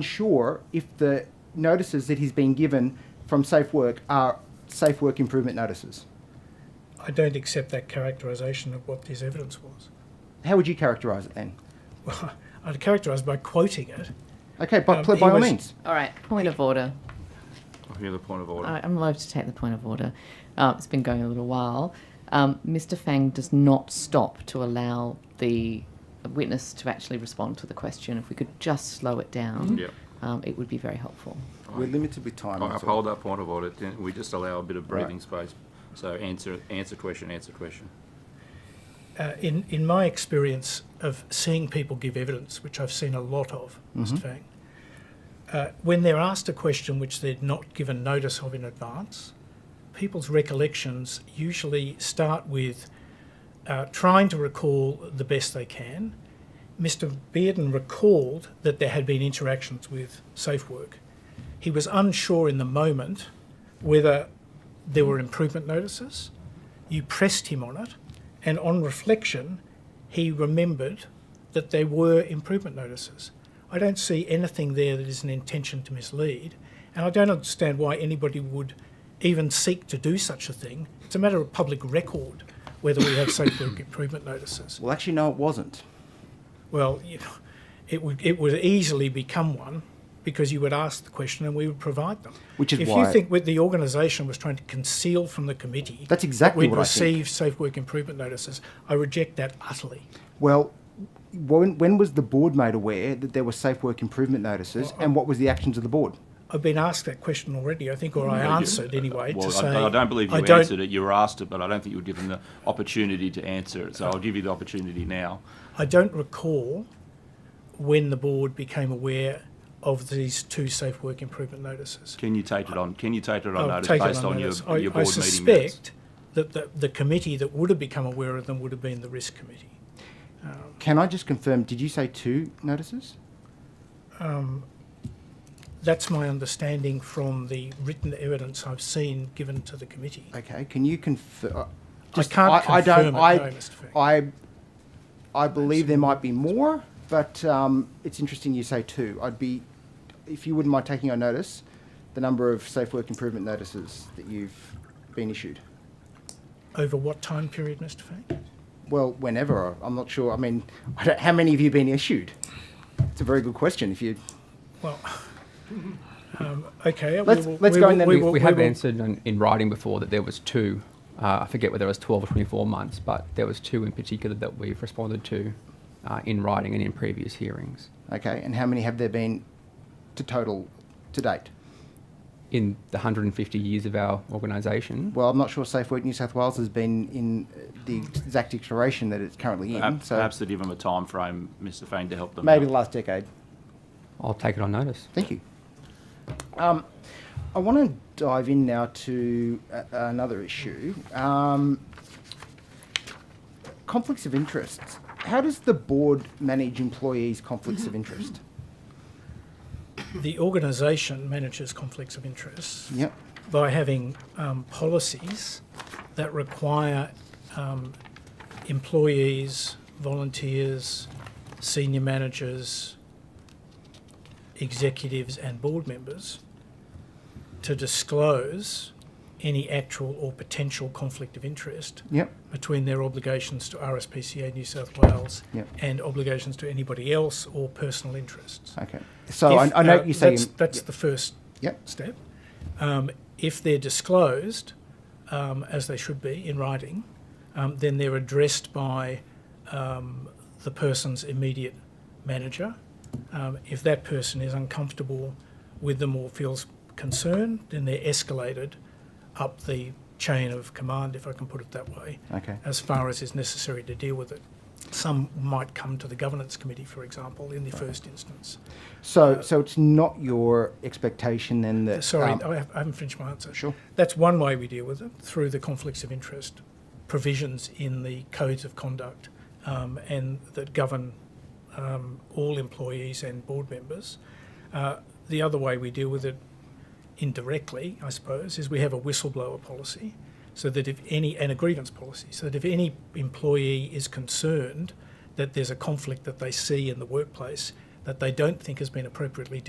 unsure if the notices that he's been given from Safe Work are Safe Work Improvement notices. I don't accept that characterisation of what this evidence was. How would you characterise it then? Well, I'd characterise by quoting it. Okay, by, Um, pl- he by all was- means. All right, point of order. I hear the point of order. I- I'm allowed to take the point of order. Uh, it's been going a little while. Um, Mr. Fang does not stop to allow the witness to actually respond to the question. If we could just slow it down, Yep. um, it would be very helpful. We're limited with time. I that's all. uphold that point of order. Then We just allow a bit of Right. breathing space. So answer, answer question, answer question. Uh, in, in my experience of seeing people give evidence, which I've seen a lot of, Mr. Fang, uh, when they're asked a question which they're not given notice of in advance, people's recollections usually start with uh, trying to recall the best they can. Mr. Bearden recalled that there had been interactions with SafeWork. He was unsure in the moment whether there were improvement notices. You pressed him on it, and on reflection, he remembered that there were improvement notices. I don't see anything there that is an intention to mislead, and I don't understand why anybody would even seek to do such a thing. It's a matter of public record whether we have safe work improvement notices. Well, actually, no, it wasn't. Well, you know, it would it would easily become one because you would ask the question and we would provide them. Which is if why- you think with the organisation was trying to conceal from the committee That's exactly that we'd what I think. receive safe work improvement notices, I reject that utterly. Well, when, when was the board made aware that there were safe work improvement notices um and what was the actions of the board? I've been asked that question already, I think, or I Well, you- answered anyway. Well, to I, say, I don't believe you I don't- answered it. You were asked it, but I don't think you were given the opportunity to answer it. So I'll give you the opportunity now. I don't recall when the board became aware of these two safe work improvement notices. Can you take it on? Can you take it on I'll notice take it based on on your, notice. I- your I board meeting minutes? suspect that the, the committee that would have become aware of them would have been the risk committee. Can I just confirm, did you say two notices? That's my understanding from the written evidence I've seen given to the committee. Okay, can you confirm? I can't I, confirm don't, it, I, no, Mr. Fang. I, I believe there might be more, but um, it's interesting you say two. I'd be, if you wouldn't mind taking on notice, the number of safe work improvement notices that you've been issued. Over what time period, Mr. Fang? Well, whenever I'm not sure. I mean, I don't, how many have you been issued? It's a very good question. If you Well, um, okay. we Let's- will- let's we go will- in then. we We- will- We have will- answered in, in writing before that there was two. Uh, I forget whether it was 12 or 24 months, but there was two in particular that we've responded to uh, in writing and in previous hearings. okay, and how many have there been to total to date? In the 150 years of our organisation, Well, I'm not sure Safe Work New South Wales has been in uh, the exact iteration that it's currently in. Perhaps, so perhaps to give them a time frame, Mr. Fain, to help them. maybe out. the last decade. I'll take it on notice. Thank you. Um, I want to dive in now to a- another issue. Um, conflicts of interest. How does the board manage employees' conflicts of interest? Mm-hmm. The organisation manages conflicts of interest Yep. by having um, policies that require um, employees, volunteers, senior managers, executives, and board members to disclose any actual or potential conflict of interest Yep. between their obligations to RSPCA New South Wales Yep. and obligations to anybody else or personal interests. Okay. So If, I, I know uh, you say. that's, that's the first Yep. step. Um, if they're disclosed, um, as they should be in writing, um, then they're addressed by um, the person's immediate manager. Um, if that person is uncomfortable with them or feels concerned, then they're escalated up the chain of command, if I can put it that way, Okay. as far as is necessary to deal with it. Some might come to the governance committee, for example, in the first instance. So so it's not your expectation then that. Sorry, um, I have- I haven't finished my answer. Sure. That's one way we deal with it through the conflicts of interest provisions in the codes of conduct um, and that govern um, all employees and board members. Uh, the other way we deal with it indirectly, I suppose, is we have a whistleblower policy so that if any, and a grievance policy, so that if any employee is concerned that there's a conflict that they see in the workplace that they don't think has been appropriately